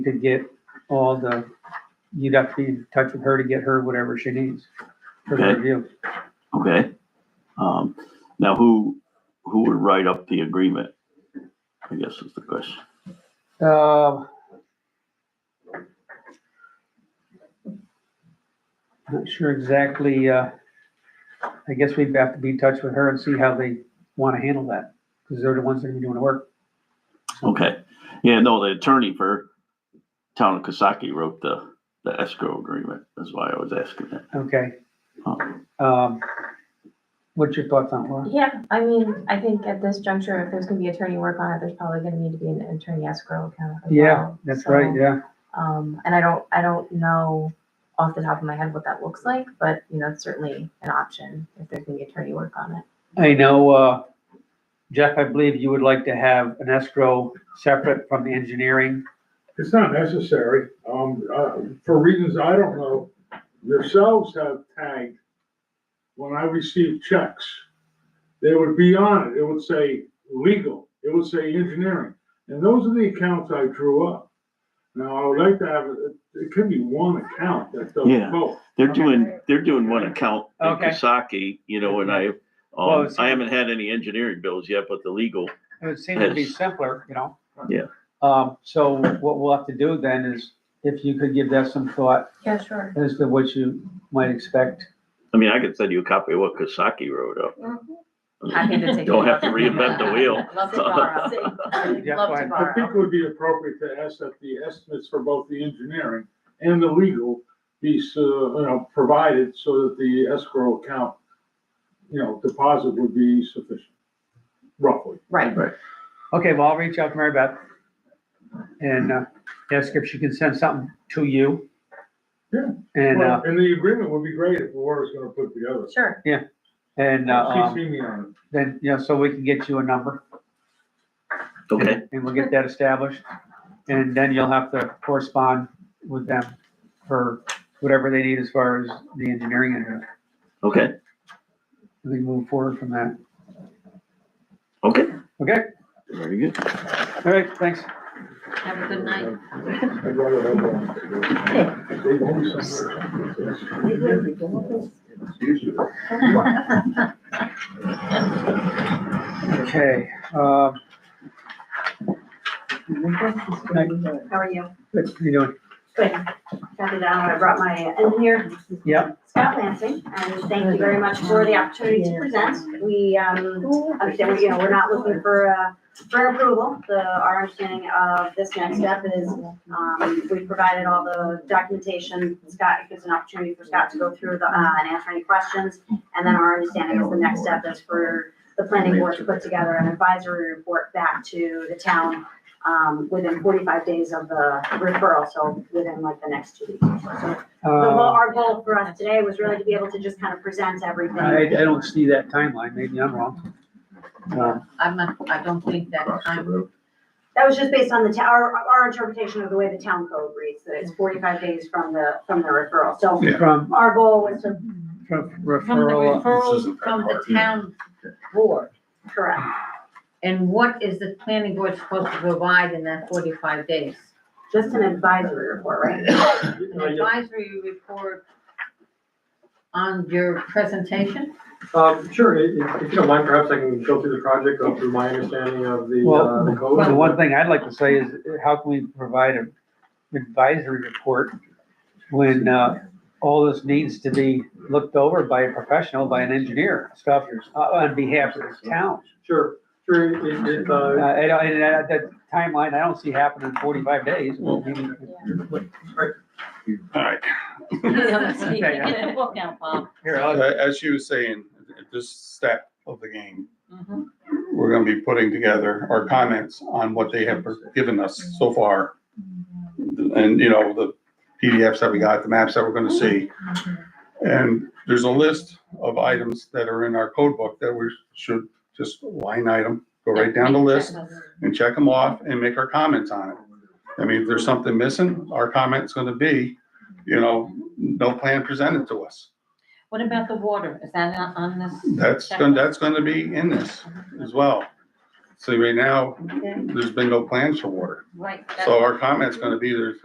to get all the, you'd have to be in touch with her to get her whatever she needs for the Okay. review. Okay. Um, now who, who would write up the agreement? I guess is the question. Um, Not sure exactly, uh, I guess we'd have to be in touch with her and see how they want to handle that, because they're the ones that are doing the work. Okay. Yeah, no, the attorney for town of Kasaki wrote the, the escrow agreement. That's why I was asking that. Okay, Huh. um, what's your thoughts on it, Laura? Yeah, I mean, I think at this juncture, if there's gonna be attorney work on it, there's probably gonna need to be an attorney escrow account as well. Yeah, that's right, So, yeah. Um, and I don't, I don't know off the top of my head what that looks like, but you know, it's certainly an option if there's gonna be attorney work on it. I know, uh, Jeff, I believe you would like to have an escrow separate from the engineering. It's not necessary, um, uh, for reasons I don't know. Yourselves have tagged, when I received checks, they would be on it, it would say legal, it would say engineering. And those are the accounts I drew up. Now, I would like to have, it it could be one account that does Yeah. both. They're doing, they're doing one account in Okay. Kasaki, you know, and I, Well, um, it's- I haven't had any engineering bills yet, but the legal, It would seem to be Yes. simpler, you know? Yeah. Um, so what we'll have to do then is if you could give that some thought Yeah, sure. as to what you might expect. I mean, I could send you a copy of what Kasaki wrote up. I Happy mean, to take. Don't it. have to reinvent the wheel. Love to borrow. Yeah, Love fine. to I I think borrow. it would be appropriate to ask that the estimates for both the engineering and the legal be, s- uh, you know, provided so that the escrow account, you know, deposit would be sufficient, roughly. Right, Okay, well, I'll reach out to Mary Beth and, uh, ask if she can send something to you. Yeah. And, uh, Well, And the agreement would be great if Laura's gonna put together. sure. and, uh, um, CC me on then, you know, so we can get you a number. Okay, And- And we'll get that established, and then you'll have to correspond with them for whatever they need as far as the engineering and everything. okay, we can move forward from that. okay. Okay, Very good. all right, thanks. Have a it. good night. I'd rather have one. They go somewhere. Okay, um, How are you? what are you doing? Good. Got it down. I brought my engineer. Yep. Scott Lansing, and thank you very much for the opportunity to present. We, um, understand, you know, we're not looking for, uh, for an approval. The, our understanding of this next step is, um, we provided all the documentation. Scott, it gives an opportunity for Scott to go through the, uh, and answer any questions. And then our understanding is the next step is for the planning board to put together an advisory report back to the town um, within forty-five days of the referral, so within like the next two weeks. The goal, Uh, our goal for us today was really to be able to just kind of present I, I everything. don't see that timeline, maybe I'm wrong. Uh, I'm not, I don't think that time, That was just based on the, ta- our, our interpretation of the way the town code reads, that it's forty-five days from the, from the referral. So From, our goal was to from from the referral, referrals from the town board. correct, And what is the planning board supposed to provide in that forty-five days? just an advisory report, right? An advisory report on your presentation? Um, sure, i- i- if you don't mind, perhaps I can go through the project, go through my understanding of the, uh, the Well, the code. one thing I'd like to say is, how can we provide an advisory report when, uh, all this needs to be looked over by a professional, by an engineer, stuff, uh, on behalf of the town? Sure, sure, it, it, Uh, uh, I don't, and that, that timeline, I don't see happening in forty-five days, Well- maybe, All right, Get the book out, Bob. here, Uh, I'll- as you were saying, at this step of the game, we're gonna be putting together our comments on what they have given us so far. And, you know, the PDFs that we got, the maps that we're gonna see. And there's a list of items that are in our code book that we should just line item, go right down the list and check them off and make our comments on it. I mean, if there's something missing, our comment's gonna be, you know, no plan presented to us. What about the water? Is that on on this? That's, gon- that's gonna be in this as well. See, right now, Okay. there's been no plans for water. Right. that's- So our comment's gonna be there's